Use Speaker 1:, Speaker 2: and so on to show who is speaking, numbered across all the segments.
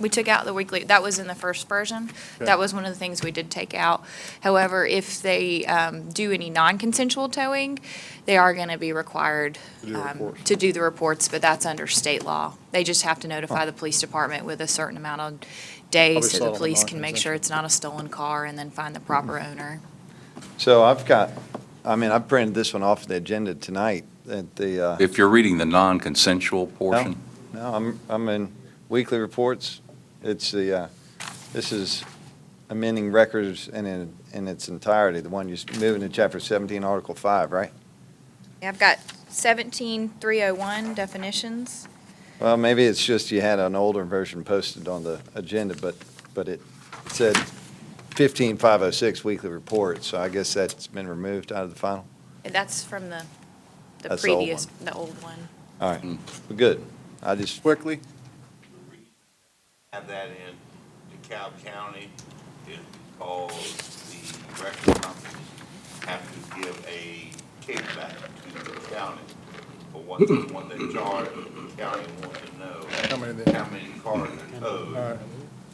Speaker 1: We took out the weekly, that was in the first version. That was one of the things we did take out. However, if they um, do any non-consensual towing, they are going to be required
Speaker 2: do the
Speaker 1: um,
Speaker 2: reports.
Speaker 1: to do the reports, but that's under state law. They just have to notify the police department with a certain amount of days so
Speaker 2: saw it
Speaker 1: the
Speaker 2: on the
Speaker 1: police can make
Speaker 2: non-consensual.
Speaker 1: sure it's not a stolen car and then find the proper owner.
Speaker 3: So I've got, I mean, I printed this one off the agenda tonight at the, uh,
Speaker 4: If you're reading the non-consensual portion,
Speaker 3: no, I'm, I'm in weekly reports. It's the, uh, this is amending records in, in- in its entirety, the one you're moving to chapter 17, article 5, right?
Speaker 1: Yeah, I've got 17301 definitions.
Speaker 3: Well, maybe it's just you had an older version posted on the agenda, but, but it said 15506 weekly report, so I guess that's been removed out of the final.
Speaker 1: And That's from the, the
Speaker 3: That's the old
Speaker 1: previous, the old one.
Speaker 3: All right, Well, good. I just,
Speaker 2: Quickly,
Speaker 5: Have that in DeKalb County, is because the record companies have to give a kickback to the county for what, what they charge, the county want to know
Speaker 2: how many there?
Speaker 5: how many cars are
Speaker 2: All
Speaker 5: towed.
Speaker 2: right.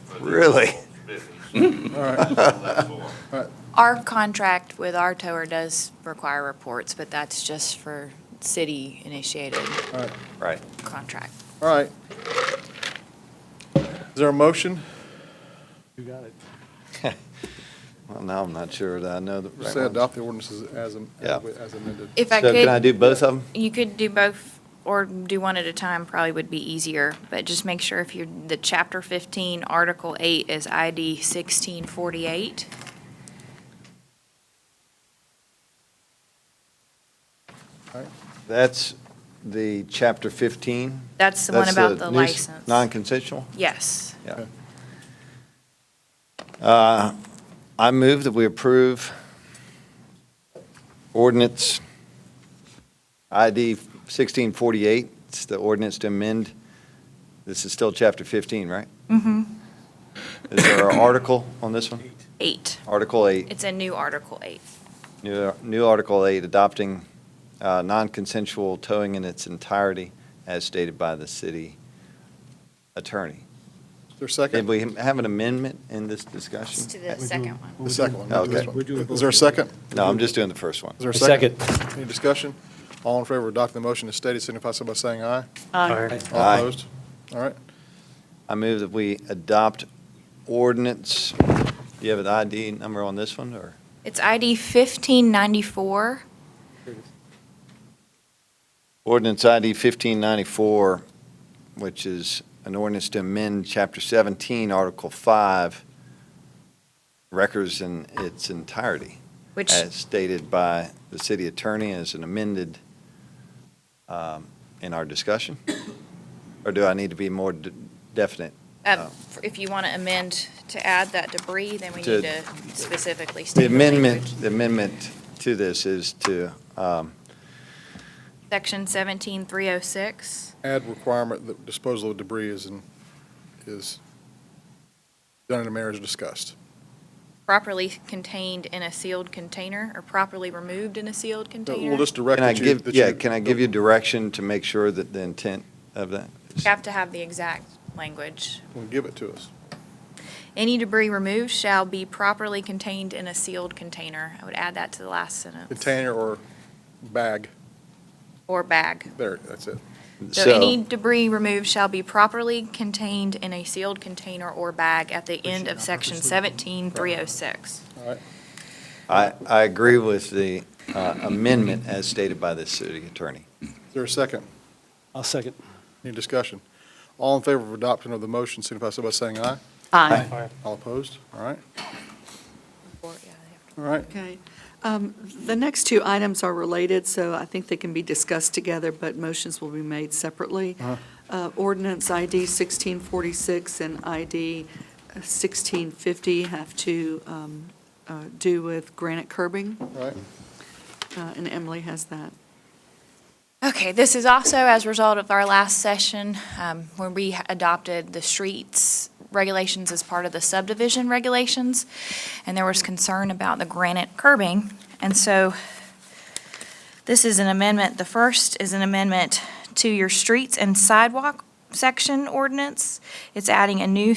Speaker 5: for this
Speaker 3: Really?
Speaker 5: business.
Speaker 2: All right,
Speaker 5: That's all.
Speaker 1: Our contract with our tower does require reports, but that's just for city-initiated
Speaker 3: right.
Speaker 1: contract.
Speaker 2: all right. Is there a motion?
Speaker 3: Well, now I'm not sure that I know the
Speaker 2: Just
Speaker 3: right
Speaker 2: say
Speaker 3: ones.
Speaker 2: adopt the ordinances as am-
Speaker 3: Yeah.
Speaker 2: as amended.
Speaker 1: If I
Speaker 3: So can I
Speaker 1: could,
Speaker 3: do both of them?
Speaker 1: you could do both, or do one at a time probably would be easier, but just make sure if you're, the Chapter 15, Article 8 is ID 1648.
Speaker 3: That's the chapter 15?
Speaker 1: That's the one
Speaker 3: That's
Speaker 1: about the
Speaker 3: nuis-
Speaker 1: license.
Speaker 3: Non-consensual?
Speaker 1: Yes.
Speaker 3: Yeah. Uh, I move that we approve ordinance ID 1648. It's the ordinance to amend, this is still chapter 15, right?
Speaker 1: Mm-hmm.
Speaker 3: Is there an article on this one?
Speaker 1: Eight.
Speaker 3: Article 8.
Speaker 1: It's a new Article 8.
Speaker 3: New new Article 8, adopting uh, non-consensual towing in its entirety as stated by the city attorney.
Speaker 2: Is there a
Speaker 3: Did
Speaker 2: second?
Speaker 3: we have an amendment in this
Speaker 1: It's to
Speaker 3: discussion?
Speaker 1: the second one.
Speaker 2: The second one.
Speaker 3: Okay.
Speaker 2: not this one.
Speaker 6: We're doing
Speaker 2: Is there a
Speaker 6: both.
Speaker 2: second?
Speaker 3: No, I'm just doing the first one.
Speaker 2: Is there a
Speaker 6: A
Speaker 2: second? Any discussion? All in favor of adopting the motion as stated, signify so by saying aye.
Speaker 6: Aye.
Speaker 2: All
Speaker 3: Aye.
Speaker 2: opposed? All right.
Speaker 3: I move that we adopt ordinance. Do you have an ID number on this one, or?
Speaker 1: It's ID 1594.
Speaker 3: Ordinance ID 1594, which is an ordinance to amend Chapter 17, Article 5, records in its entirety.
Speaker 1: Which,
Speaker 3: as stated by the city attorney as an amended um, in our discussion? Or do I need to be more de- definite?
Speaker 1: um, if you want to amend to add that debris, then we
Speaker 3: To-
Speaker 1: need to specifically state
Speaker 3: The
Speaker 1: the
Speaker 3: amendment,
Speaker 1: language.
Speaker 3: the amendment to this is to, um,
Speaker 1: Section 17306.
Speaker 2: Add requirement that disposal of debris is, in- is done in a manner as discussed.
Speaker 1: Properly contained in a sealed container or properly removed in a sealed
Speaker 2: We'll
Speaker 1: container.
Speaker 2: just direct
Speaker 3: can I
Speaker 2: that you.
Speaker 3: give,
Speaker 2: that
Speaker 3: yeah, can I give you direction to make sure that the intent of that?
Speaker 1: You have to have the exact language.
Speaker 2: Well, Give it to us.
Speaker 1: Any debris removed shall be properly contained in a sealed container. I would add that to the last sentence.
Speaker 2: Container or bag.
Speaker 1: Or bag.
Speaker 2: There, that's it.
Speaker 1: So any debris removed shall be properly contained in a sealed container or bag at the end of section 17306.
Speaker 3: I, I agree with the uh, amendment as stated by the city attorney.
Speaker 2: Is there a second?
Speaker 6: I'll second.
Speaker 2: Any discussion? All in favor of adoption of the motion, signify so by saying aye.
Speaker 6: Aye.
Speaker 2: All opposed? All right,
Speaker 1: Or, yeah, they have
Speaker 2: all right.
Speaker 7: Okay. Um, The next two items are related, so I think they can be discussed together, but motions will be made separately. Uh, Ordinance ID 1646 and ID 1650 have to um, uh, do with granite curbing,
Speaker 2: All right.
Speaker 7: uh, and Emily has that.
Speaker 1: Okay, this is also as a result of our last session, um, when we adopted the streets regulations as part of the subdivision regulations, and there was concern about the granite curbing, and so this is an amendment, the first is an amendment to your streets and sidewalk, section ordinance. It's adding a new